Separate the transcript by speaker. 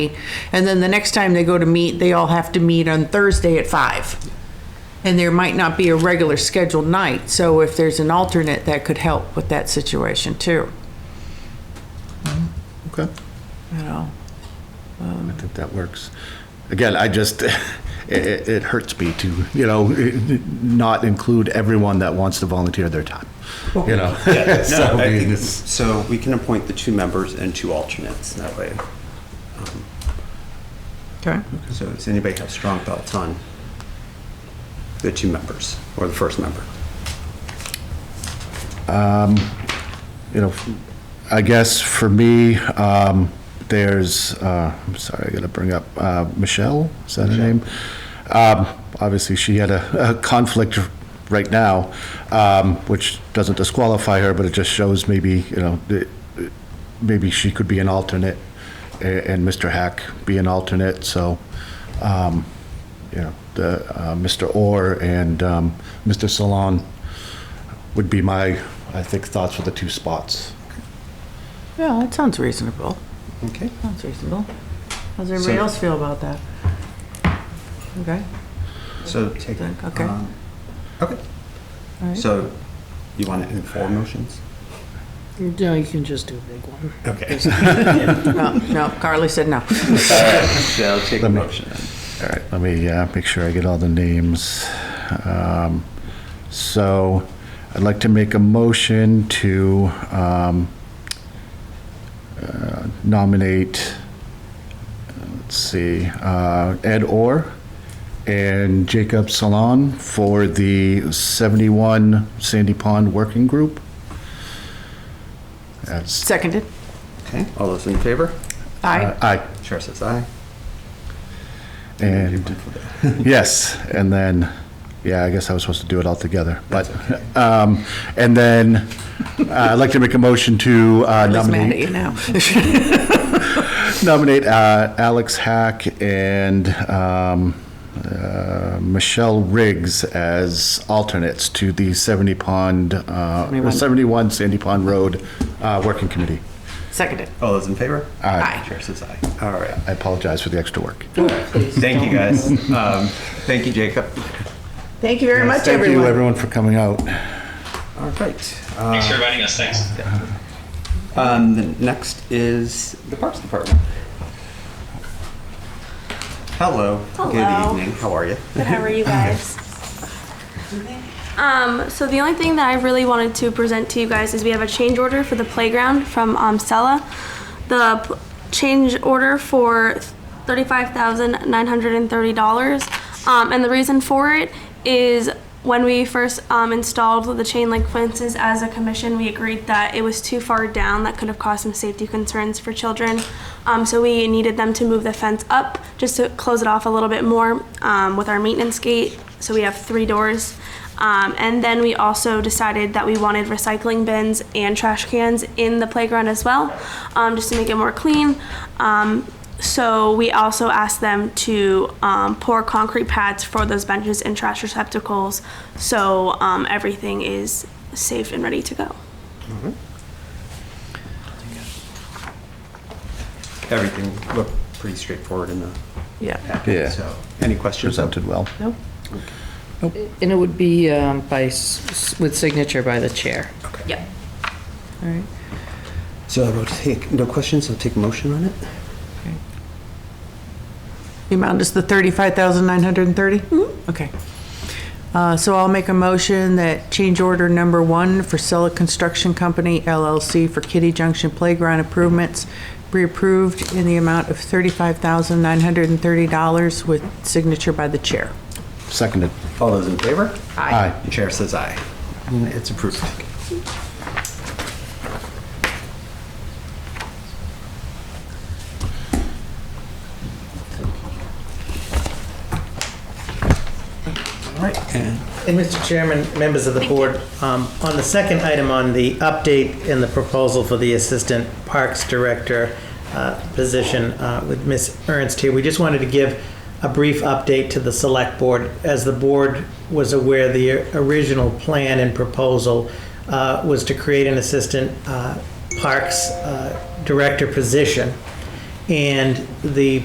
Speaker 1: And then the next time they go to meet, they all have to meet on Thursday at five. And there might not be a regular scheduled night, so if there's an alternate, that could help with that situation too,
Speaker 2: Okay.
Speaker 1: you know?
Speaker 2: Um, I think that works. Again, I just, it, it it hurts me to, you know, not include everyone that wants to volunteer their time, you know? So, I mean, it's-
Speaker 3: So we can appoint the two members and two alternates that way.
Speaker 1: Okay.
Speaker 3: So does anybody have strong thoughts on the two members or the first member?
Speaker 2: You know, I guess for me, um, there's, uh, I'm sorry, I gotta bring up, uh, Michelle, is that her name? Um, obviously, she had a, a conflict right now, um, which doesn't disqualify her, but it just shows maybe, you know, the- maybe she could be an alternate a- and Mr. Hack be an alternate, so, um, you know, the, uh, Mr. Orr and, um, Mr. Salon would be my, I think, thoughts for the two spots.
Speaker 1: Yeah, that sounds reasonable.
Speaker 3: Okay.
Speaker 1: Sounds reasonable. How's everybody
Speaker 3: So-
Speaker 1: else feel about that? Okay,
Speaker 3: So take.
Speaker 1: Okay.
Speaker 3: um, Okay.
Speaker 1: all right.
Speaker 3: So you want to inform motions?
Speaker 4: No, you can just do a big one.
Speaker 3: Okay.
Speaker 1: No, no, Carly said no.
Speaker 3: So take a
Speaker 2: Let me-
Speaker 3: motion. then.
Speaker 2: All right, let me uh, make sure I get all the names. Um, So I'd like to make a motion to um, uh, nominate, let's see, uh, Ed Orr and Jacob Salon for the 71 Sandy Pond Working Group. That's,
Speaker 1: Seconded?
Speaker 3: Okay, all those in favor?
Speaker 1: Aye.
Speaker 2: uh, aye.
Speaker 3: Chair says aye.
Speaker 2: And Yes, and then, yeah, I guess I was supposed to do it all together, but, um, and then, uh, I'd like to make a motion to uh,
Speaker 1: Liz mad at
Speaker 2: nominate,
Speaker 1: you now.
Speaker 2: nominate, uh, Alex Hack and, um, uh, Michelle Riggs as alternates to the 70 Pond, uh,
Speaker 1: 71.
Speaker 2: or 71 Sandy Pond Road, uh, Working Committee.
Speaker 1: Seconded.
Speaker 3: All those in favor?
Speaker 1: Aye.
Speaker 3: Chair says aye. All right.
Speaker 2: I apologize for the extra work.
Speaker 3: Thank you, guys. Um, Thank you, Jacob.
Speaker 1: Thank you very much,
Speaker 2: Thank you,
Speaker 1: everyone.
Speaker 2: everyone, for coming out.
Speaker 3: All right. uh,
Speaker 5: Thanks for inviting us. Thanks.
Speaker 3: Um, the next is the Parks Department. Hello.
Speaker 6: Hello.
Speaker 3: Good evening. How are you?
Speaker 6: Good, how are you guys? Um, so the only thing that I really wanted to present to you guys is we have a change order for the playground from, um, Stella. The p- change order for thirty-five thousand nine hundred and thirty dollars. Um, and the reason for it is when we first, um, installed the chain link fences as a commission, we agreed that it was too far down. That could have caused some safety concerns for children. Um, so we needed them to move the fence up just to close it off a little bit more um, with our maintenance gate. So we have three doors. Um, and then we also decided that we wanted recycling bins and trash cans in the playground as well, um, just to make it more clean. Um, so we also asked them to um, pour concrete pads for those benches and trash receptacles, so um, everything is safe and ready to go.
Speaker 3: Everything looked pretty straightforward in the
Speaker 1: Yeah.
Speaker 3: packet.
Speaker 2: Yeah.
Speaker 3: So, any questions?
Speaker 2: Presented well.
Speaker 1: Nope.
Speaker 4: And it would be um, by, s- s- with signature by the chair.
Speaker 6: Yep.
Speaker 4: All right.
Speaker 3: So I will take no questions. I'll take a motion on it.
Speaker 1: The amount is the 35,930? Mm-hmm. Okay. Uh, So I'll make a motion that change order number one for Sella Construction Company LLC for Kitty Junction Playground Improvements be approved in the amount of $35,930 with signature by the chair.
Speaker 2: Seconded.
Speaker 3: All those in favor?
Speaker 2: Aye.
Speaker 3: The chair says aye. And it's approved. All right, and
Speaker 7: And Mr. Chairman, members of the board, um, on the second item on the update and the proposal for the Assistant Parks Director uh, position uh, with Ms. Ernst here, we just wanted to give a brief update to the Select Board. As the board was aware, the original plan and proposal uh, was to create an Assistant uh, Parks uh, Director position. And the